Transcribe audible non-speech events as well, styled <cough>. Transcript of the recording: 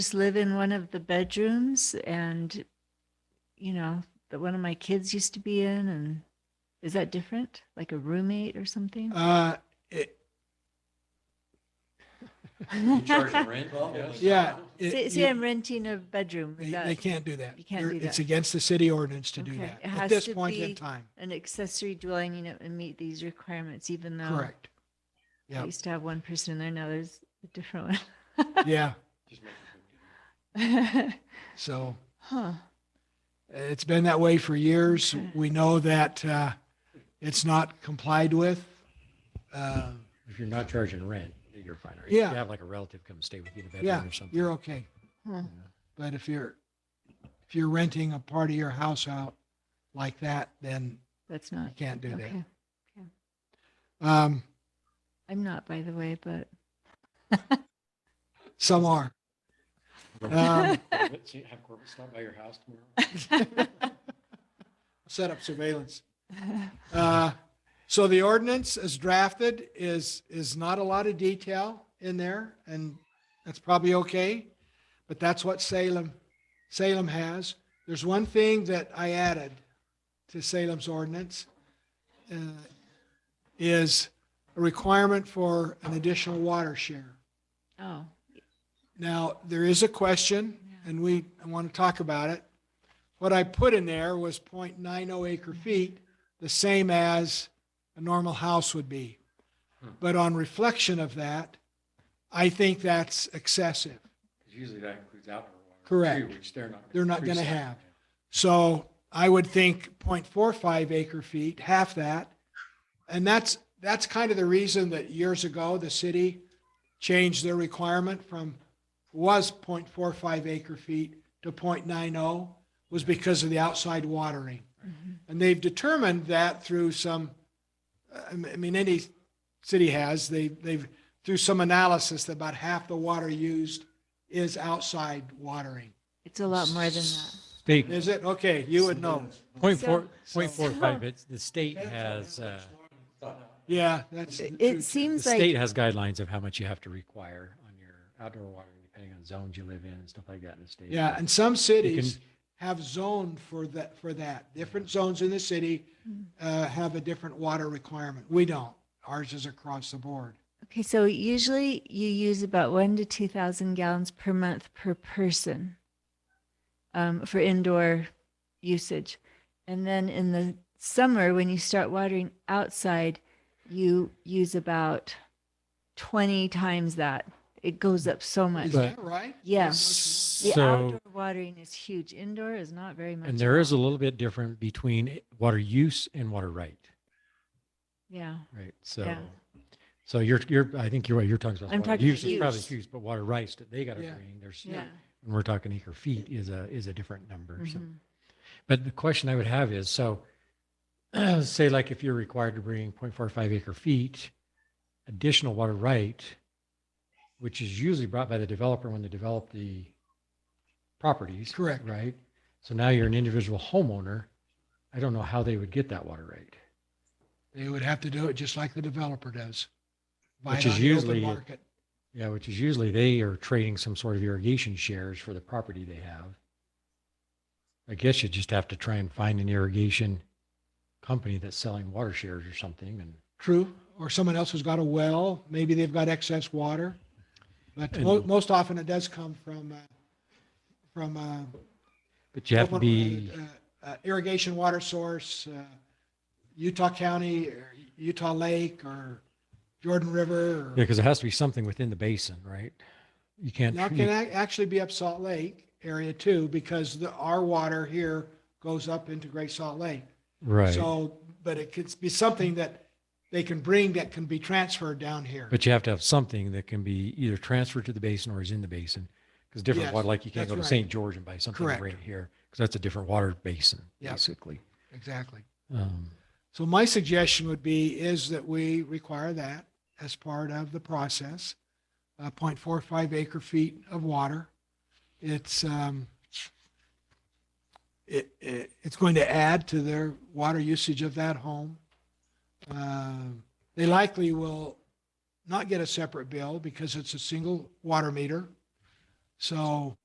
just live in one of the bedrooms and, you know, that one of my kids used to be in and is that different? Like a roommate or <laughs> something? Uh, it, <laughs> You charge them rent? Yes. yeah. it- Say, you- say I'm renting a bedroom. Is They, they that can't do that. you can't They're- do It's that. against the city ordinance to do Okay. that It at has this to point in be- time. an accessory dwelling unit and meet these requirements, even though Correct. I Yep. used to have one person in there, now there's a different Yeah. Just make it- one. <laughs> So Huh. it's been that way for years. Okay. We know that, uh, it's not complied with. Uh, If you're not charging rent, you're fine. Or Yeah. If you have like a relative come stay with you in a Yeah, bedroom or something. you're okay. huh. But if you're, if you're renting a part of your house out like that, then That's you not, can't do okay. that. Um, I'm not, by the way, but some are. Um, Corbett, <laughs> see- Have Corbett stop by your house <laughs> tomorrow? set up surveillance. <laughs> Uh, So the ordinance as drafted is, is not a lot of detail in there, and that's probably okay, but that's what Salem, Salem has. There's one thing that I added to Salem's ordinance, uh, is a requirement for an additional water share. oh, Now, there is a question, and we want to talk about it. What I put in there was 0.90 acre feet, the same as a normal house would be. But on reflection of that, I think that's excessive. 'Cause Usually that includes outdoor water. too, Correct. Which they're not. They're not gonna precinct. have. So I would think 0.45 acre feet, half that. And that's, that's kind of the reason that years ago, the city changed their requirement from, was 0.45 acre feet to 0.90, was because of the outside watering. And they've determined that through some, I mean- I mean, any city has, they, they've, through some analysis, that about half the water used is outside watering. it's a lot more than that. State, Is it? Okay, you would know. point So- four, point four so- five, it's, the state has, uh, Yeah, that's. the It truth. the seems state like, has guidelines of how much you have to require on your outdoor watering, depending on zones you live in and stuff like that in the state. Yeah, and some You cities can, have zoned for that, for that. Different zones in the city Mm-hmm. uh, have a different water requirement. We don't. Ours is across the board. okay, so usually you use about one to 2,000 gallons per month per person um, for indoor usage. And then in the summer, when you start watering outside, you use about 20 times that. It goes up so much. Is But- that right? Yeah. Much The So- outdoor watering is huge. Indoor is not very much. and at there is a all. little bit different between water use and water right, Yeah. right? So, Yeah. so you're, you're, I think you're right, you're talking about. I'm water talking use is Probably use. use, but water rights that they got to Yeah. bring, there's, Yeah. when we're talking acre feet is a, is a different number. So mhm. But the question I would have is, so <clears throat> say like if you're required to bring 0.45 acre feet, additional water right, which is usually brought by the developer when they develop the properties. Correct. Right? So now you're an individual homeowner. I don't know how they would get that water right. They would have to do it just like the developer does. Buy it Which is on the open usually- market. Yeah, which is usually they are trading some sort of irrigation shares for the property they have. I guess you just have to try and find an irrigation company that's selling water shares or something and True. Or someone else has got a well, maybe they've got excess water. But mo- And- most often it does come from, uh, from, uh, But you have to open- be, uh, uh, Irrigation water source, uh, Utah County, or Utah Lake, or Jordan River. yeah, or- because it has to be something within the basin, right? You can't, Now it can ac- actually be up Salt Lake area too, because the, our water here goes up into Great Salt Lake. right. So, but it could be something that they can bring that can be transferred down here. But you have to have something that can be either transferred to the basin or is in the basin. Because different Yes, water, like you that's can't go to right. St. George and buy something Correct. right here, because that's a different water basin, Yep. basically. Exactly. Um, So my suggestion would be is that we require that as part of the process, uh, 0.45 acre feet of water. It's, um, it, it, it's going to add to their water usage of that home. Um, They likely will not get a separate bill because it's a single water meter. So